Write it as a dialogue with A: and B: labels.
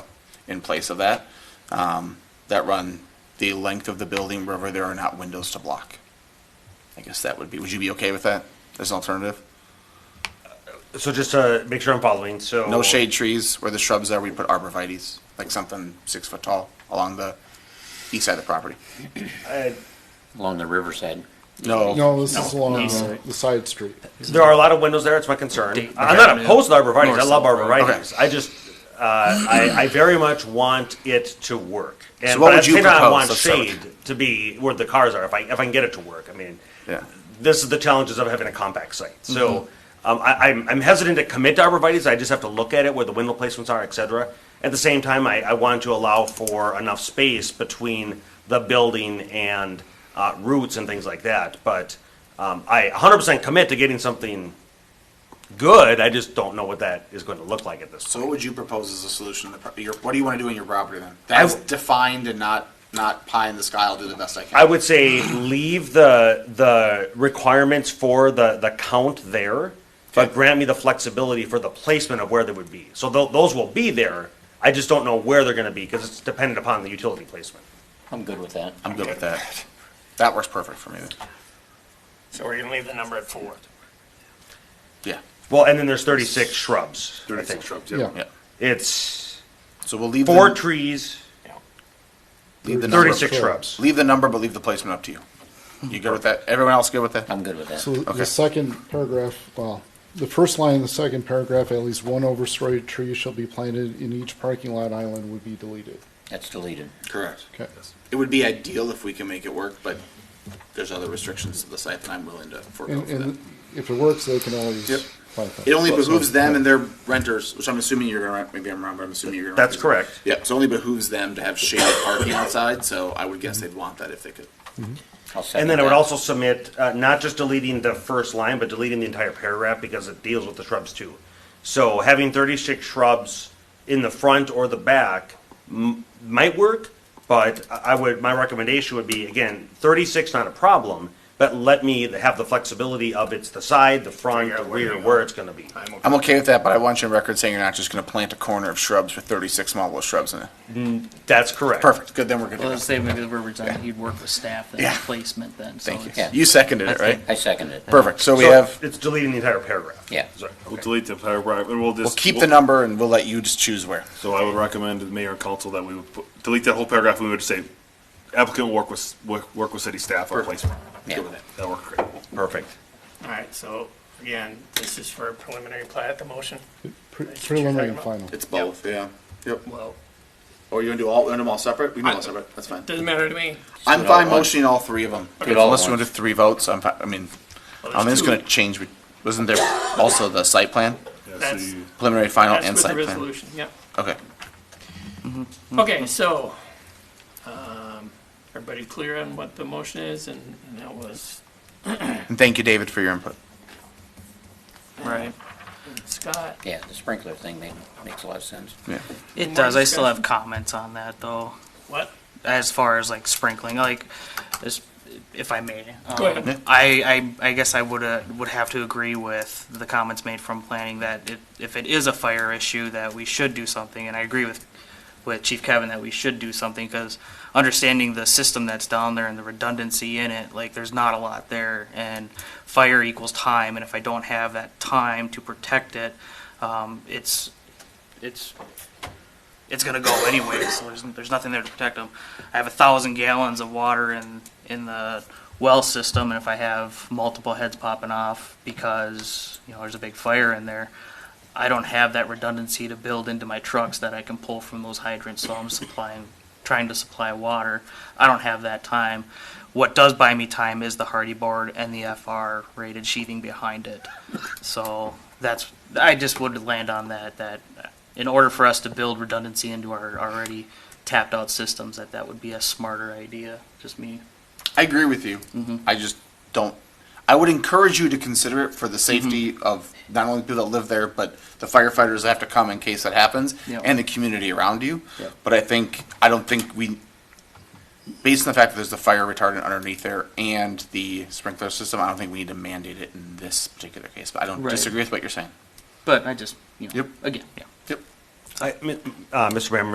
A: in place of that, um, that run the length of the building wherever there are not windows to block. I guess that would be, would you be okay with that as an alternative?
B: So just to make sure I'm following, so.
A: No shade trees where the shrubs are, we put arborvitae's, like something six foot tall along the east side of the property.
B: Uh,
C: along the riverside.
A: No.
D: No, this is
A: Oh, no,
D: along
A: east.
D: the, the side street.
B: There are a lot of windows there, it's my concern. I'm
C: Okay.
B: not opposed to arborvitae's, I
C: North
B: love
C: side, right.
B: arborvitae's. I just, uh, I, I very much want it to work. And
A: So what
B: but at
A: would
B: the
A: you
B: same time, I
A: propose?
B: want
A: Let's start
B: shade to be where the cars are, if I, if I can get it to work, I mean.
A: Yeah.
B: This is the challenges of having a compact site, so, um, I, I'm, I'm hesitant to commit to arborvitae's, I just have to look at it, where the window placements are, et cetera. At the same time, I, I want to allow for enough space between the building and, uh, roots and things like that, but, um, I hundred percent commit to getting something good. I just don't know what that is going to look like at this.
A: So what would you propose as a solution? to the pro- Your, what do you want to do in your property then? That's
B: w-
A: defined and not, not pie in the sky, I'll do the best I can.
B: I would say leave the the requirements for the the count there, but
A: Okay.
B: grant me the flexibility for the placement of where they would be. So tho- those will be there. I just don't know where they're going to be because it's dependent upon the utility placement.
C: I'm good with that.
A: I'm good with that. That works perfect for me then.
E: So we're gonna leave the number at four.
A: Yeah,
B: Well, and then there's 36 shrubs. I think.
D: Yeah.
A: yeah.
B: It's
A: So we'll leave.
B: four
A: the-
B: trees,
E: Yeah.
A: leave the number-
B: 36 shrubs.
A: Leave the number, but leave the placement up to you. You good with that? Everyone else good with that?
C: I'm good with that.
D: So
A: Okay.
D: the second paragraph, well, the first line in the second paragraph, at least one overstory tree shall be planted in each parking lot island would be deleted.
C: That's deleted.
A: Correct.
D: Okay.
A: It would be ideal if we can make it work, but there's other restrictions to the site that I'm willing to forego
D: And,
A: for that.
D: and if it works, they can always
A: Yep.
D: plant that.
A: It only behooves them and their renters, which I'm assuming you're gonna rent, maybe I'm wrong, but I'm assuming you're gonna. rent
B: That's
A: these.
B: correct.
A: Yeah, so it only behooves them to have shaded parking outside, so I would guess they'd want that if they could.
C: I'll second
B: and then I would
C: that.
B: also submit uh, not just deleting the first line, but deleting the entire paragraph because it deals with the shrubs too. So having 36 shrubs in the front or the back m- might work, but I I would my recommendation would be again 36 not a problem, but let me have the flexibility of it's the side, the front, the rear, where it's going to be.
E: I'm okay.
A: I'm okay with that, but I want you on record saying you're not just gonna plant a corner of shrubs with thirty-six multiple shrubs in it.
B: That's correct.
A: Perfect, good, then we're good to
F: Well,
A: go.
F: let's say maybe the verbiage on it, you'd work with staff then,
A: Yeah.
F: placement then, so
A: Thank you.
F: it's.
C: Yeah.
A: You seconded it, right?
C: I second it.
A: Perfect, so we
B: So
A: have.
B: it's deleting the entire paragraph.
C: Yeah.
B: Sorry.
G: We'll delete the paragraph, and we'll just.
A: We'll keep the number and we'll let you just choose where.
G: So I would recommend to the mayor and council that we would put- delete that whole paragraph, and we would say applicant will work with, work work with city staff on placement.
C: Yeah.
G: Good with that. That'll work great.
B: Perfect.
E: All right, so again, this is for preliminary plat, the motion.
D: Pre- Preliminary and final.
A: It's both, yeah. Yep.
E: Well,
A: Or you want to do all, want them all separate? We can do all
E: I-
A: separate, that's fine.
E: doesn't matter to me.
A: I'm
C: Do it all
A: fine
C: at once.
A: motioning all three of them.
C: it all at
A: Unless you want to
C: once.
A: do three votes, I'm fine, I mean,
C: Oh,
E: Well,
A: I mean,
E: there's
A: it's gonna
E: two.
A: change, with- wasn't there also the site plan?
G: Yeah, so
E: That's-
G: you-
A: Preliminary, final,
E: That's
A: Oh, and
E: with the
A: site plan? Mm-hmm.
E: resolution, yep.
A: Okay.
E: Okay, so, um, everybody clear on what the motion is and and that was
A: And thank you, David, for your input.
F: Right.
E: Scott.
C: Yeah, the sprinkler thing made, makes a lot of sense.
A: Yeah.
F: It does, I still have comments on that though,
E: What?
F: as far as like sprinkling, like, this- if I may.
E: Go
F: um,
E: ahead.
A: Yeah.
F: I, I, I guess I would, uh, would have to agree with the comments made from planning that it, if it is a fire issue, that we should do something, and I agree with, with Chief Kevin that we should do something, because understanding the system that's down there and the redundancy in it, like, there's not a lot there, and fire equals time, and if I don't have that time to protect it, um, it's, it's, it's gonna go anyway, so there's, there's nothing there to protect them. I have a thousand gallons of water in, in the well system, and if I have multiple heads popping off because, you know, there's a big fire in there, I don't have that redundancy to build into my trucks that I can pull from those hydrants, so I'm supplying, trying to supply water. I don't have that time. What does buy me time is the hardy board and the FR rated sheathing behind it. So that's, I just would land on that, that in order for us to build redundancy into our already tapped out systems, that that would be a smarter idea, just me.
A: I agree with you. I just don't. I would encourage you to consider it for the safety of not only people that live there, but the firefighters that have to come in case that happens,
F: Yep.
A: and the community around you.
F: Yep.
A: But I think I don't think we, based on the fact that there's the fire retardant underneath there and the sprinkler system, I don't think we need to mandate it in this particular case. But I don't
F: Right.
A: disagree with what you're saying.
F: But I just, you know,
A: Yep.
F: again, yeah.
A: Yep.
B: I, mi- uh, Mr. Mayor,